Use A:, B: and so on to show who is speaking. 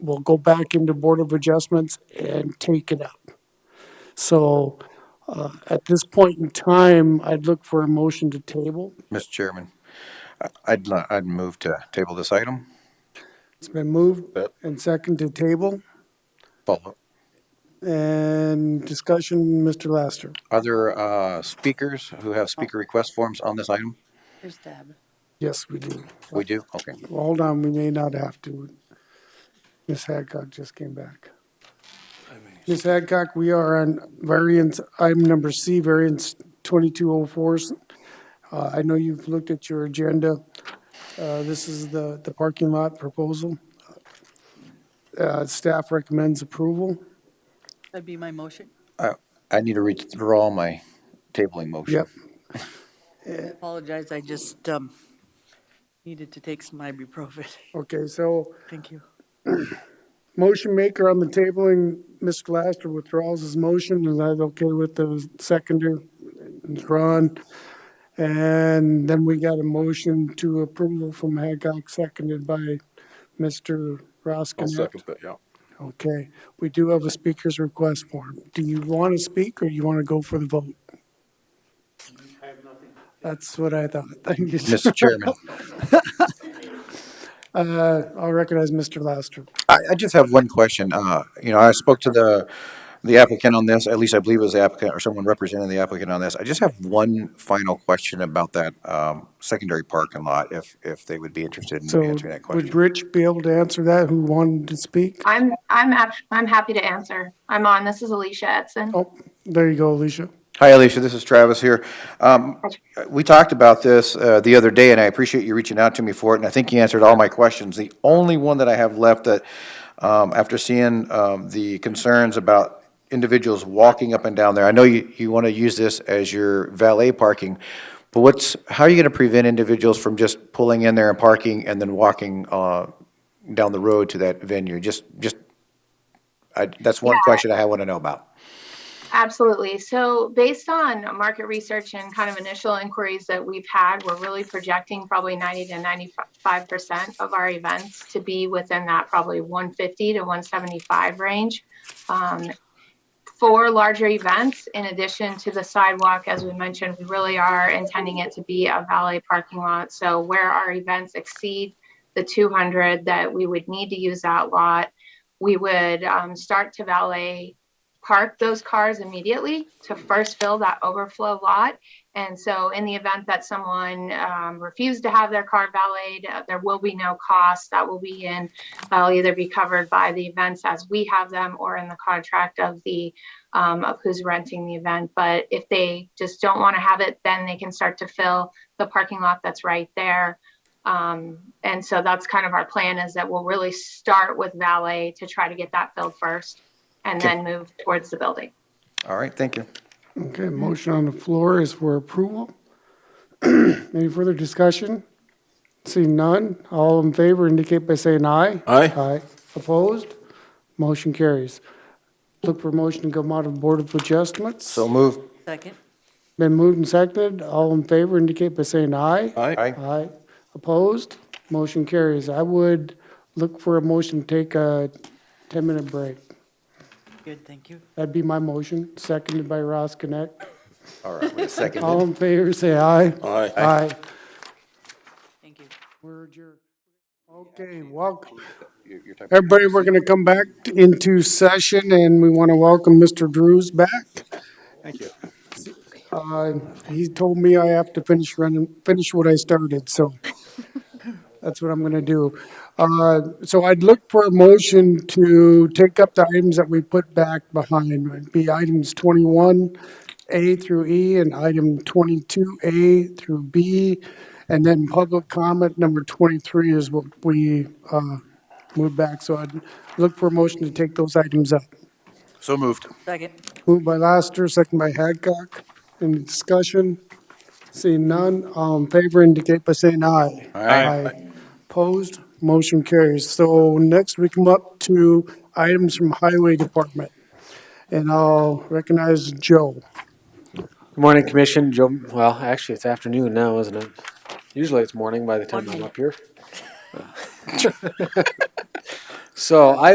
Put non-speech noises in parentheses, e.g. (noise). A: will go back into Board of Adjustments and take it up. So uh, at this point in time, I'd look for a motion to table.
B: Mr. Chairman, I- I'd, li- I'd move to table this item.
A: It's been moved
B: Yep.
A: and second to table.
B: Follow.
A: And discussion, Mr. Laster.
B: Other uh, speakers who have speaker request forms on this item?
C: Here's Deb.
A: Yes, we do.
B: We do? Okay.
A: Well, Hold on, we may not have to. Ms. Hadcock just came back. Ms. Hadcock, we are on variance, item number C, variance 2204. Uh, I know you've looked at your agenda. Uh, This is the, the parking lot proposal. Uh, Staff recommends approval.
C: That'd be my motion.
B: I I need to withdraw my tabling motion.
A: Yep.
C: Apologize, I just um, needed to take some ibuprofen. (laughs)
A: Okay, so
C: Thank you.
A: motion maker on the tabling, Mr. Laster withdraws his motion. Is that okay with the seconder? Ron? And then we got a motion to approval from Hancock, seconded by Mr.
D: I'll
A: Roskinet.
D: second that, yeah.
A: Okay, we do have a speaker's request form. Do you want to speak or you want to go for the vote? I have nothing. That's what I thought. (laughs) Thank you.
B: Mr. Chairman,
A: Uh, I'll recognize Mr. Laster.
B: I, I just have one question. Uh, you know, I spoke to the, the applicant on this, at least I believe it was the applicant or someone representing the applicant on this. I just have one final question about that, um, secondary parking lot, if, if they would be interested in
A: So
B: answering that
A: would
B: question.
A: Rich be able to answer that, who wanted to speak?
E: I'm I'm act- I'm happy to answer. I'm on. This is Alicia Edson.
A: Oh, there you go, Alicia.
B: Hi, Alicia, this is Travis here. Um, we talked about this, uh, the other day, and I appreciate you reaching out to me for it, and I think you answered all my questions. The only one that I have left that, um, after seeing, um, the concerns about individuals walking up and down there, I know you, you want to use this as your valet parking, but what's, how are you going to prevent individuals from just pulling in there and parking and then walking, uh, down the road to that venue? Just, just, I, that's one
E: Yeah.
B: question I want to know about.
E: Absolutely. So, based on market research and kind of initial inquiries that we've had, we're really projecting probably 90 to 95% of our events to be within that probably 150 to 175 range. Um, for larger events, in addition to the sidewalk, as we mentioned, we really are intending it to be a valet parking lot. So, where our events exceed the 200 that we would need to use that lot, we would um, start to valet park those cars immediately to first fill that overflow lot. And so, in the event that someone um, refused to have their car valeted, uh, there will be no cost. That will be in, that'll either be covered by the events as we have them or in the contract of the um, of who's renting the event. But if they just don't want to have it, then they can start to fill the parking lot that's right there. Um, and so that's kind of our plan is that we'll really start with valet to try to get that filled first and
B: Okay.
E: then move towards the building.
B: All right, thank you.
A: Okay, motion on the floor is for approval. (clears throat) Any further discussion? Seeing none, all in favor indicate by saying aye.
D: Aye.
A: Aye. Opposed? Motion carries. Look for motion to come out of Board of Adjustments.
B: So move.
C: Second?
A: Been moved and seconded, all in favor indicate by saying aye.
D: Aye.
B: Aye.
A: Aye. Opposed? Motion carries. I would look for a motion to take a 10-minute break.
C: Good, thank you.
A: That'd be my motion, seconded by Ross Connect.
B: All right, wait a second.
A: All in favor, say aye.
D: Aye.
A: Aye.
C: Thank you.
A: We're adjourned. Okay, welcome.
B: Your- your time-
A: Everybody, we're going to come back into session and we want to welcome Mr. Drews back.
B: Thank you.
A: Uh, He told me I have to finish running, finish what I started, so that's what I'm going to do. Uh, So I'd look for a motion to take up the items that we put back behind. It'd be items 21A through E and item 22A through B. And then public comment number 23 is what we uh, moved back. So I'd look for a motion to take those items up.
B: So moved.
C: Second?
A: Moved by Laster, second by Hadcock. Any discussion? Seeing none, all in favor indicate by saying aye.
B: Aye.
A: Opposed, motion carries. So next we come up to items from Highway Department. And I'll recognize Joe.
F: Good morning, Commission. Joe, well, actually, it's afternoon now, isn't it? Usually it's morning by the time I'm up here. (laughs) So I